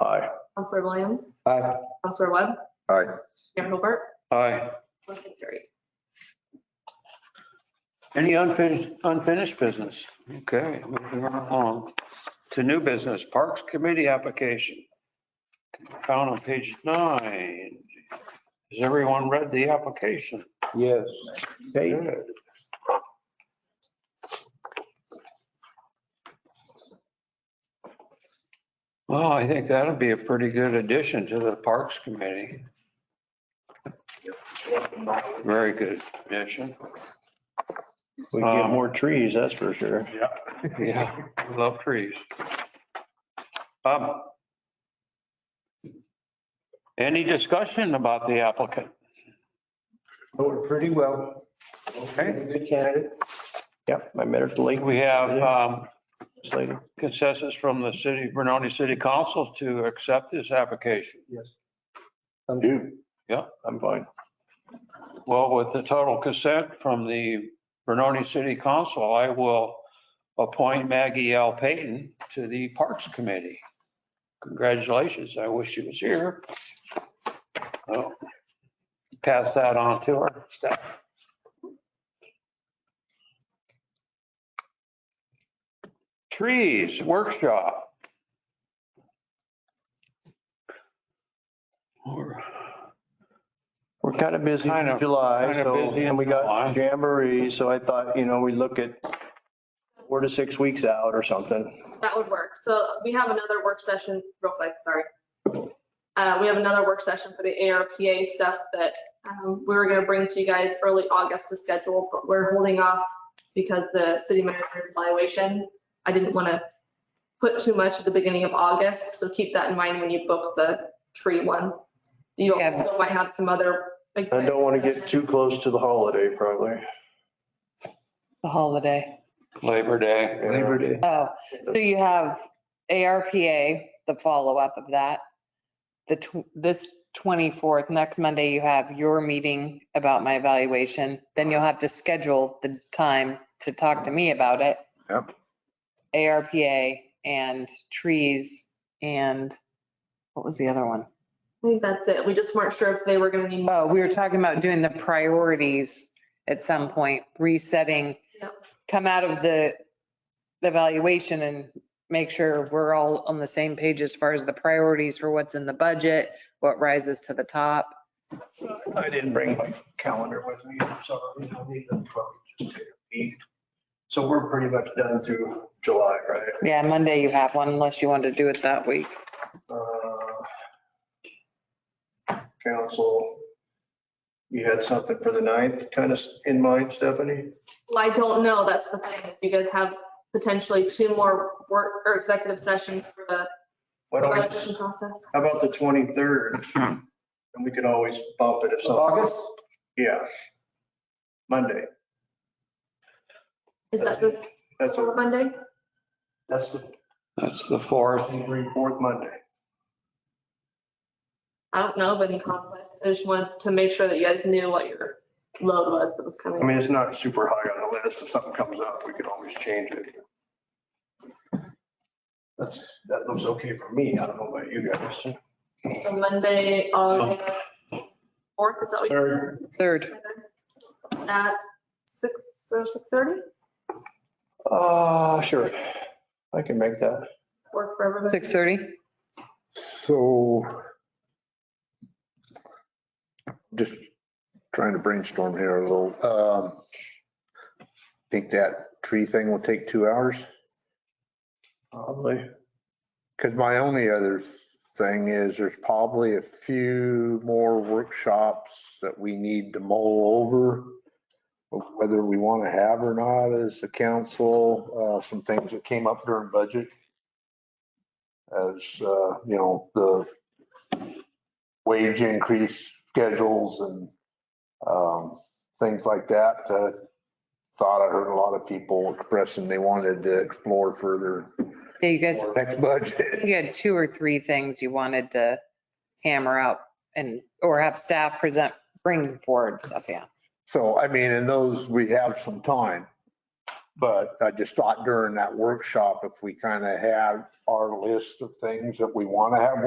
Aye. Counselor Williams, Aye. Counselor Webb, Aye. Mayor Hilbert, Aye. motion carried. Any unfinished, unfinished business? Okay, moving right along to new business, Parks Committee application. Found on page nine. Has everyone read the application? Yes. Hey, Good. Well, I think that'd be a pretty good addition to the Parks Committee. Very good addition. we Uh, get more trees, that's for sure. Yeah, I love trees. Um, Any discussion about the applicant? Voted pretty well. Okay. Good candidate. Yep, I met her at the lake We have um, later. consensus from the city, Vernoni City Council to accept this application. Yes. You. Yeah. I'm fine. Well, with the total consent from the Vernoni City Council, I will appoint Maggie L. Payton to the Parks Committee. Congratulations. I wish she was here. So, Pass that on to her. Trees Workshop. Or- We're kind of busy Kind in of- July, kind of so, busy in and we July. got Jamboree, so I thought, you know, we look at four to six weeks out or something. That would work. So we have another work session, real quick, sorry. Uh, we have another work session for the ARPA stuff that, um, we were gonna bring to you guys early August to schedule, but we're holding off because the city manager's evaluation, I didn't wanna put too much at the beginning of August, so keep that in mind when you book the tree one. You Yeah. also might have some other. I don't want to get too close to the holiday, probably. The holiday. Labor Day. Labor Day. Oh, so you have ARPA, the follow-up of that. The, tw- this 24th, next Monday, you have your meeting about my evaluation. Then you'll have to schedule the time to talk to me about it. Yep. ARPA and trees and what was the other one? I think that's it. We just weren't sure if they were gonna need. Oh, we were talking about doing the priorities at some point, resetting, Yep. come out of the the evaluation and make sure we're all on the same page as far as the priorities for what's in the budget, what rises to the top. I didn't bring my calendar with me, I'm sorry. I need to probably just take a peek. So we're pretty much done through July, right? Yeah, Monday you have one unless you want to do it that week. Uh, Council, you had something for the ninth kind of in mind, Stephanie? Well, I don't know. That's the thing. You guys have potentially two more work or executive sessions for the Why don't we, election process. how about the 23rd? And we could always bump it if something. August? Yeah. Monday, Is that the that's, a- Monday? that's the That's the fourth. fourth Monday. I don't know, but in conflicts, I just wanted to make sure that you guys knew what your load was that was coming. I mean, it's not super high on the list. If something comes up, we can always change it. That's, that looks okay for me. I don't know about you guys. So Monday, August fourth, is that what you Third, Third, said? At six or six thirty? uh, sure. I can make that. Work for everybody? 6:30. So just trying to brainstorm here a little. Um, Think that tree thing will take two hours? Probably. Because my only other thing is there's probably a few more workshops that we need to mull over. Whether we want to have or not as the council, uh, some things that came up during budget. As, uh, you know, the wage increase schedules and, um, things like that. uh, Thought I heard a lot of people expressing they wanted to explore further Yeah, you guys, next budget. you had two or three things you wanted to hammer out and, or have staff present, bring forward stuff, yeah. So, I mean, in those, we have some time. But I just thought during that workshop, if we kind of had our list of things that we want to have